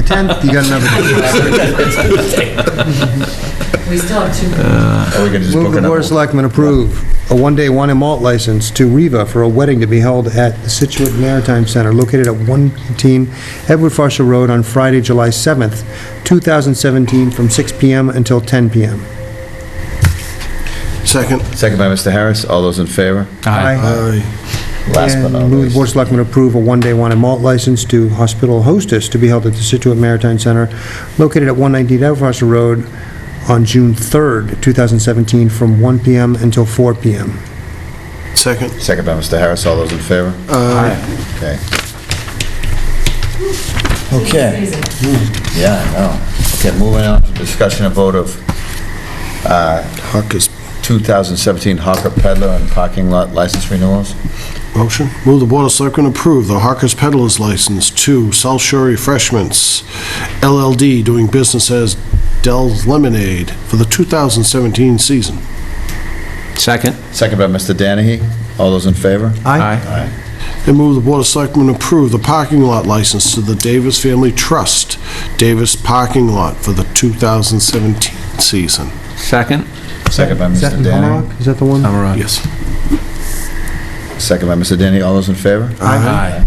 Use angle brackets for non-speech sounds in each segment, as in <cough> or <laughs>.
10th, you got another. We still have two. Are we gonna just Move book the Board of another? Selectmen approve a one-day wine and malt license to Riva for a wedding to be held at the Situate Maritime Center located at 118 Edward Foster Road on Friday, July 7th, 2017, from 6 PM until 10 PM. Second. Second by Mr. Harris, all those in favor? Aye. Last but And not move the least. Board of Selectmen approve a one-day wine and malt license to Hospital Hostess to be held at the Situate Maritime Center located at 119 Edward Foster Road on June 3rd, 2017, from 1 PM until 4 PM. Second. Second by Mr. Harris, all those in favor? Uh. Aye. Okay. Okay. Hmm. Amazing. Yeah, I know. Okay, moving on to discussion and vote of Hawker's 2017 Hawker Peddler and Parking Lot License Renewals. motion. Move the Board of Selectmen approve the Hawker's Peddlers License to South Shore Refreshments LLD doing business as Dell's Lemonade for the 2017 season. Second? Second by Mr. Danahy, all those in favor? Uh, Aye. And move the Board of Selectmen approve the parking lot license to the Davis Family Trust Davis Parking Lot for the 2017 season. Second? Second by Is that Mr. in Danahy. Hummerock? Is that the one? Aye. Yes. Second by Mr. Danahy, all those in favor? Aye.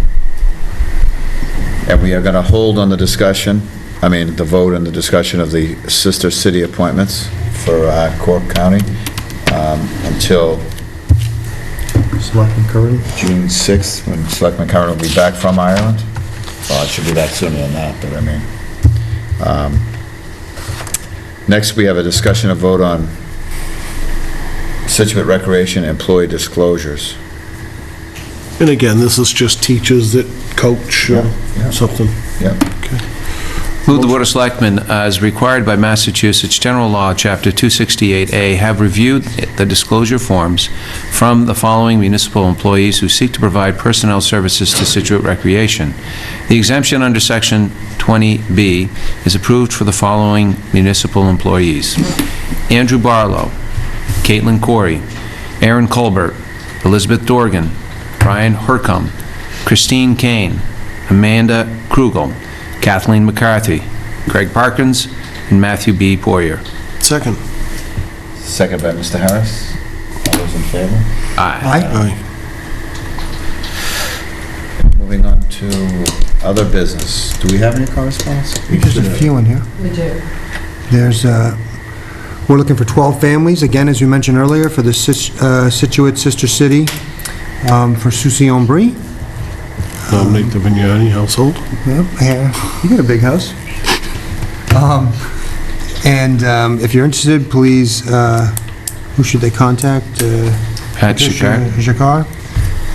And we are going to hold on the discussion, I mean, the vote and the discussion of the sister city appointments for uh, Cork County um, until Selectman Curran? June 6th, when Selectman Curran will be back from Ireland. Well, it should be that sooner than that, but I mean. um, Next, we have a discussion of vote on Situate Recreation Employee Disclosures. And again, this is just teachers that coach or something. Yep. Move the Board of Selectmen, as required by Massachusetts General Law, Chapter 268A, have reviewed the disclosure forms from the following municipal employees who seek to provide personnel services to Situate Recreation. The exemption under Section 20B is approved for the following municipal employees: Andrew Barlow, Caitlin Corey, Aaron Colbert, Elizabeth Dorgan, Brian Hercom, Christine Kane, Amanda Krugel, Kathleen McCarthy, Greg Parkins, and Matthew B. Poirier. Second. Second by Mr. Harris. All those in favor? Aye. Aye. Moving on to other business. Do we have any correspondence? There's a few in here. We do. There's, uh, we're looking for 12 families, again, as we mentioned earlier, for the Sis- uh, Situate Sister City, um, for Susie Ombry. Nominate the Vignani household. Yep, yeah, You got a big house. Um, And um, if you're interested, please, uh, who should they contact? Uh, Pat Shakar. Patricia Jacquard,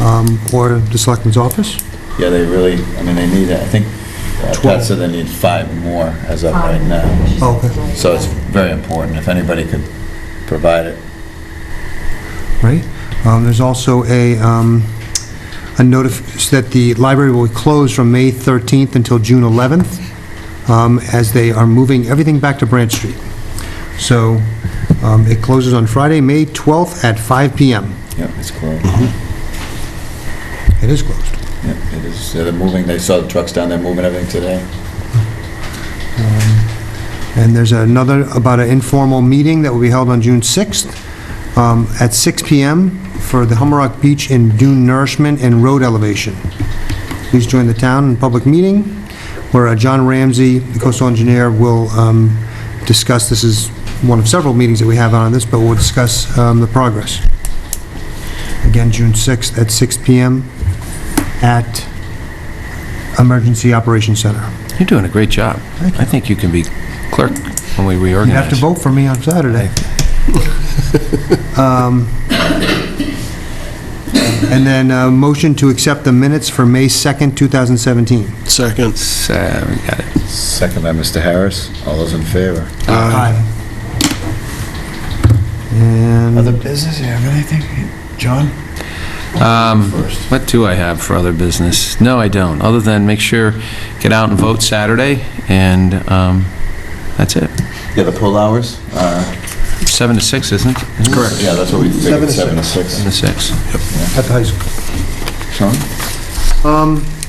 um, or the Selectman's Office? Yeah, they really, I mean, they need, I think, uh, Pat said they need five more as of right now. Okay. So it's very important, if anybody could provide it. right? Um, There's also a, um, a notice that the library will close from May 13th until June 11th, um, as they are moving everything back to Branch Street. So um, it closes on Friday, May 12th at 5 PM. Yep, it's closed. It is closed. Yep, it is, they're moving, they saw the trucks down there moving everything today. And there's another, about an informal meeting that will be held on June 6th um, at 6 PM for the Hummerock Beach and Dune Nourishment and Road Elevation. Please join the town in public meeting where uh, John Ramsey, the coastal engineer, will um, discuss, this is one of several meetings that we have on this, but we'll discuss um, the progress. Again, June 6th at 6 PM at Emergency Operations Center. You're doing a great job. I think you can be clerk when we You have reorganize. to vote for me on Saturday. <laughs> Um, And then, uh, motion to accept the minutes for May 2nd, 2017. Second. So, we got it. Second by Mr. Harris, all those in favor? Aye. And business, you have anything? John? Um, What do I have for other business? No, I don't, other than make sure, get out and vote Saturday, and um, that's it. Yeah, the pull hours are... Seven to six, isn't it? Isn't it? Yeah, that's what we Seven figured, seven to six. Seven to six. at the high school. Sean? Um,